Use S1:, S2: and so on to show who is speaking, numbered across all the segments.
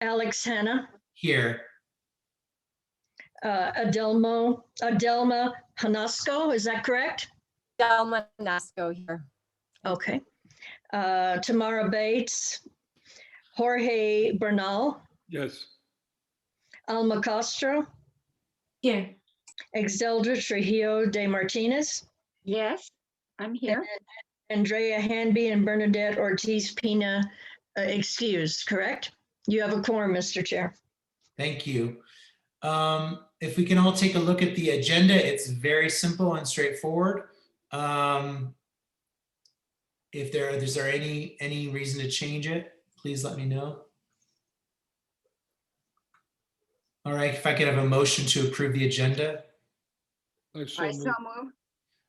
S1: Alex Hannah,
S2: Here,
S1: uh, Adelmo, Adelma Hanasco, is that correct?
S3: Delma Nasco here.
S1: Okay. Uh, Tamara Bates, Jorge Bernal,
S4: Yes.
S1: Alma Castro,
S5: Here.
S1: Exeldra Trujillo de Martinez,
S5: Yes, I'm here.
S1: Andrea Hanby, and Bernadette Ortiz Pina uh, excused, correct? You have a quorum, Mr. Chair.
S2: thank you. Um, If we can all take a look at the agenda, it's very simple and straightforward. Um, If there, is there any, any reason to change it, please let me know. All right, if I could have a motion to approve the agenda.
S4: I
S5: I
S4: so
S5: so
S4: moved.
S5: move.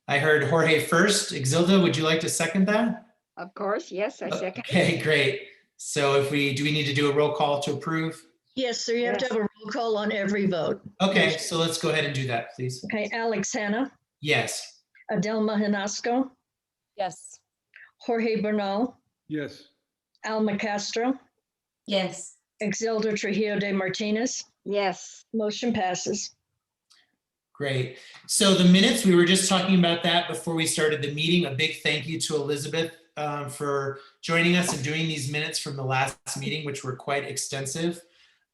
S2: I heard Jorge first. Exilda, would you like to second that?
S5: Of course, yes, I second.
S2: Okay, great. So if we, do we need to do a roll call to approve?
S1: Yes, sir, you have to
S5: Yes.
S1: have a roll call on every vote.
S2: Okay, so let's go ahead and do that, please.
S1: Okay, Alex Hannah,
S2: Yes.
S1: Adelma Hanasco,
S3: Yes.
S1: Jorge Bernal,
S4: Yes.
S1: Alma Castro,
S5: Yes.
S1: Exilda Trujillo de Martinez.
S5: Yes,
S1: Motion passes.
S2: Great. So the minutes, we were just talking about that before we started the meeting. A big thank you to Elizabeth um, for joining us and doing these minutes from the last meeting, which were quite extensive.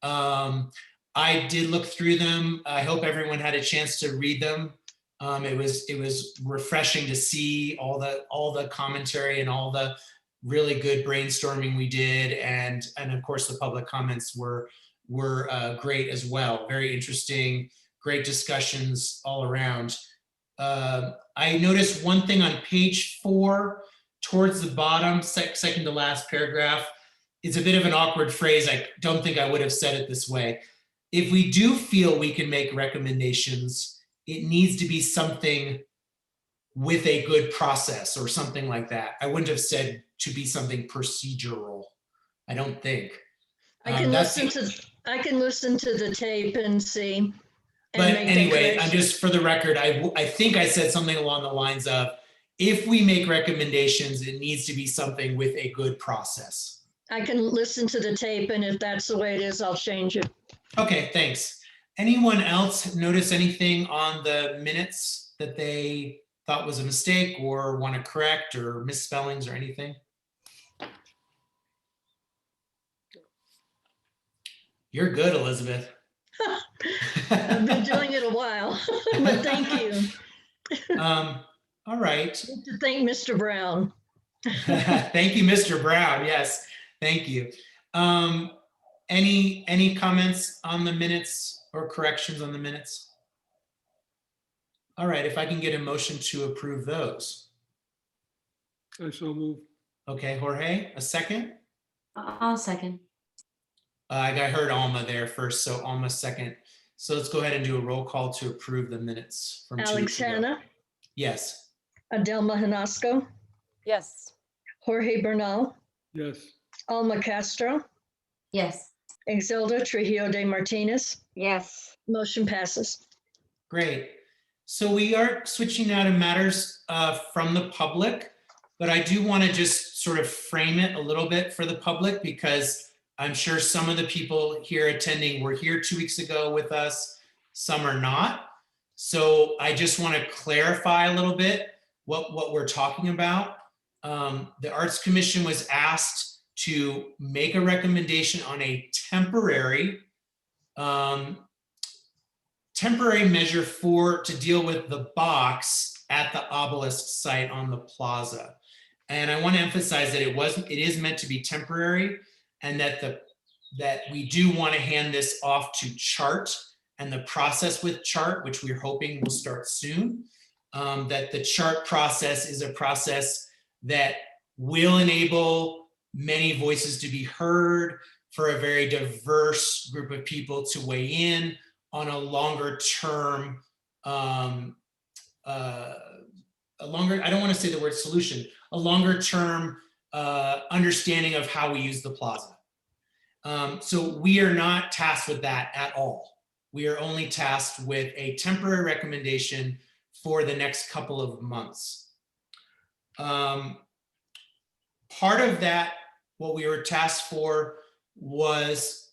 S2: Um, I did look through them. I hope everyone had a chance to read them. Um, It was, it was refreshing to see all the, all the commentary and all the really good brainstorming we did. And, and of course, the public comments were, were uh, great as well. Very interesting great discussions all around. Uh, I noticed one thing on page four, towards the bottom, sec- second to last paragraph. It's a bit of an awkward phrase. I don't think I would have said it this way. If we do feel we can make recommendations, it needs to be something with a good process or something like that. I wouldn't have said to be something procedural. I don't think.
S1: I
S2: Um,
S1: can
S2: that's the-
S1: listen to, I can listen to the tape and see. and
S2: But
S1: make the
S2: anyway, I'm
S1: correction.
S2: just, for the record, I, w- I think I said something along the lines of, if we make recommendations, it needs to be something with a good process.
S1: I can listen to the tape and if that's the way it is, I'll change it.
S2: Okay, thanks. Anyone else notice anything on the minutes that they thought was a mistake or want to correct or misspellings or anything? You're good, Elizabeth.
S1: I've been doing it a while, but thank you.
S2: Um, all right.
S1: Need To thank Mr. Brown.
S2: Thank you, Mr. Brown. Yes, thank you. Um, any, any comments on the minutes or corrections on the minutes? All right, if I can get a motion to approve those.
S4: I so moved.
S2: Okay, Jorge, a second?
S6: I'll second.
S2: Uh, I got- heard Alma there first, so Alma second. So let's go ahead and do a roll call to approve the minutes. from two
S1: Alex
S2: weeks ago.
S1: Hannah,
S2: Yes,
S1: Adelma Hanasco,
S3: Yes.
S1: Jorge Bernal,
S4: Yes.
S1: Alma Castro,
S6: Yes.
S1: Exilda Trujillo de Martinez.
S5: yes.
S1: Motion passes.
S2: great. So we are switching now to matters uh, from the public, but I do want to just sort of frame it a little bit for the public because I'm sure some of the people here attending were here two weeks ago with us, some are not. So I just want to clarify a little bit what, what we're talking about. Um, The Arts Commission was asked to make a recommendation on a temporary um, temporary measure for, to deal with the box at the obelisk site on the plaza. And I want to emphasize that it wasn't, it is meant to be temporary and that the, that we do want to hand this off to chart and the process with chart, which we're hoping will start soon. um, that the chart process is a process that will enable many voices to be heard for a very diverse group of people to weigh in on a longer term, um, uh, a longer, I don't want to say the word solution, a longer term uh, understanding of how we use the plaza. Um, so we are not tasked with that at all. We are only tasked with a temporary recommendation for the next couple of months. Um, part of that, what we were tasked for was